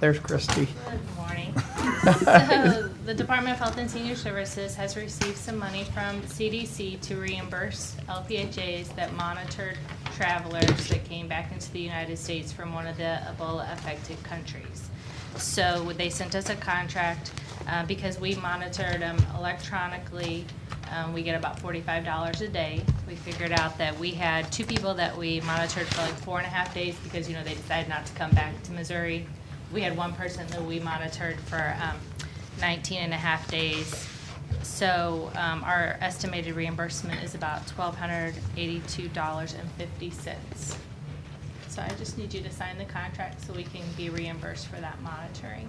There's Christy. Good morning. So, The Department of Health and Senior Services has received some money from CDC to reimburse LPHAs that monitored travelers that came back into the United States from one of the Ebola-affected countries. So they sent us a contract uh, because we monitored them electronically. Um, We get about forty-five dollars a day. We figured out that we had two people that we monitored for like four and a half days because, you know, they decided not to come back to Missouri. We had one person that we monitored for um, 19 and a half days. So um, our estimated reimbursement is about $1,282.50. So I just need you to sign the contract so we can be reimbursed for that monitoring.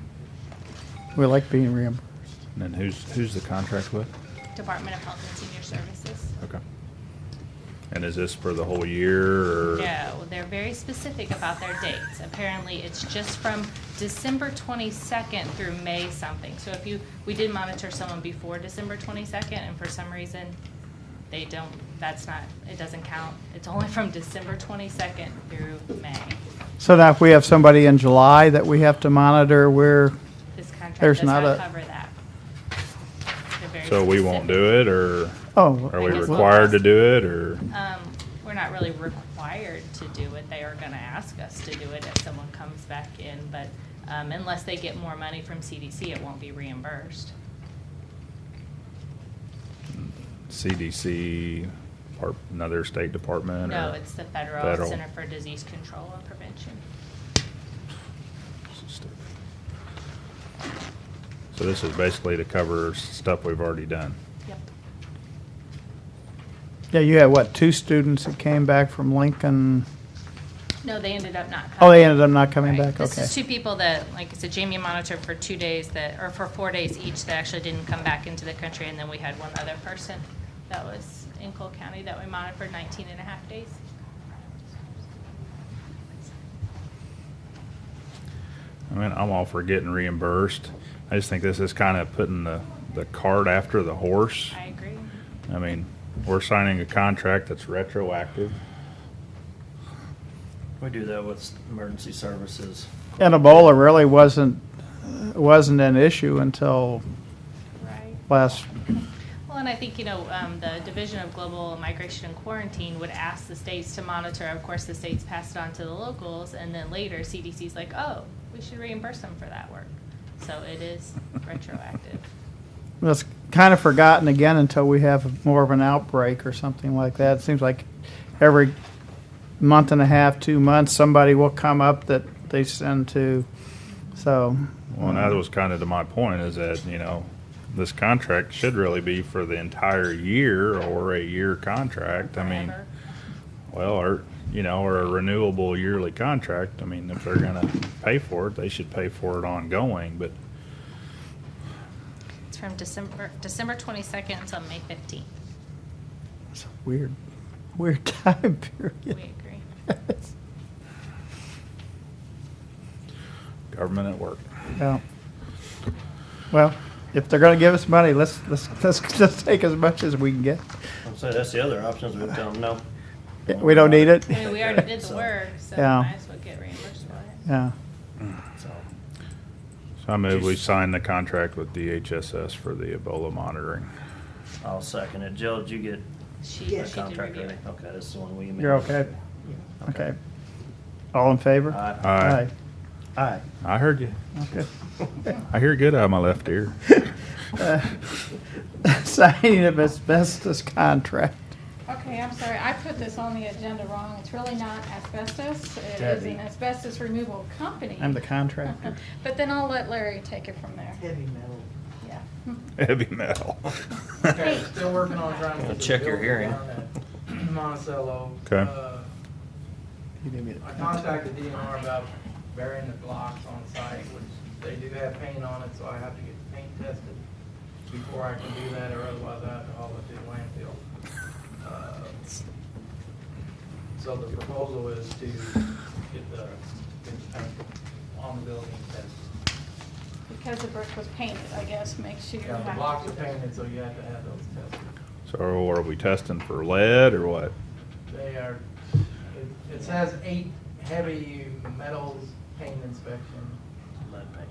We like being reimbursed. And then who's, who's the contract with? Department of Health and Senior Services. Okay. And is this for the whole year or? No, they're very specific about their dates. Apparently, it's just from December 22nd through May something. So if you, we did monitor someone before December 22nd, and for some reason, they don't, that's not, it doesn't count. It's only from December 22nd through May. So now if we have somebody in July that we have to monitor, we're, This contract There's does not not a- cover that. They're very So we won't specific. do it or oh. are we I guess we'll- required to do it or? Um, we're not really required to do it. They are gonna ask us to do it if someone comes back in, but, um, unless they get more money from CDC, it won't be reimbursed. CDC, part, another state department? No, or- it's the Federal Federal. Center for Disease Control and Prevention. So this is basically to cover stuff we've already done. Yep. Yeah, you had what, two students that came back from Lincoln? No, they ended up not Oh, coming. they ended up not coming Right. back, okay. This is two people that, like I said, Jamie monitored for two days that, or for four days each that actually didn't come back into the country, and then we had one other person that was in Cole County that we monitored for 19 and a half days. I mean, I'm all for getting reimbursed. I just think this is kind of putting the, the cart after the horse. I agree. I mean, we're signing a contract that's retroactive. We do that with emergency services. And Ebola really wasn't, wasn't an issue until Right. last, Well, and I think, you know, um, the Division of Global Migration and Quarantine would ask the states to monitor. Of course, the states pass it on to the locals, and then later CDC's like, oh, we should reimburse them for that work. So it is retroactive. that's kind of forgotten again until we have more of an outbreak or something like that. It seems like every month and a half, two months, somebody will come up that they send to, so. Well, and that was kind of to my point is that, you know, this contract should really be for the entire year or a year contract. I mean, Forever. well, or, you know, or a renewable yearly contract. I mean, if they're gonna pay for it, they should pay for it ongoing, but It's from December, December 22nd until May 15th. It's a weird, weird time We period. agree. government at work. Yeah. Well, if they're gonna give us money, let's, let's, let's, let's take as much as we can get. I'm saying that's the other option, is we tell them no. We don't need it. I mean, we already did the work, so we Yeah. might as well get reimbursed for it. Yeah. So, So I move we sign the contract with DHSS for the Ebola monitoring. I'll second it. Jill, did you get She, the she did contract review ready? it. Okay, this is the one we made. You're okay? Okay. All in favor? Aye. Aye. Aye. I heard you. Okay. I hear good out of my left ear. Signing of asbestos contract. Okay, I'm sorry, I put this on the agenda wrong. It's really not asbestos. It is Debbie. an asbestos removal company. I'm the contractor. But then I'll let Larry take it from there. Heavy metal. Yeah. Heavy metal. Hey. Still working on trying to. get the Check your building hearing. down at Monticello. Okay. Uh, You give me the- I contacted DNR about burying the blocks on site, which they do have paint on it, so I have to get the paint tested before I can do that, or otherwise I have to haul it to the landfill. Uh, So the proposal is to get the, get the paint on the building tested. Because the brick was painted, I guess, makes you. Yeah, the have blocks to are do that. painted, so you have to have those tested. So are we testing for lead or what? They are, it- it says eight heavy metals paint inspection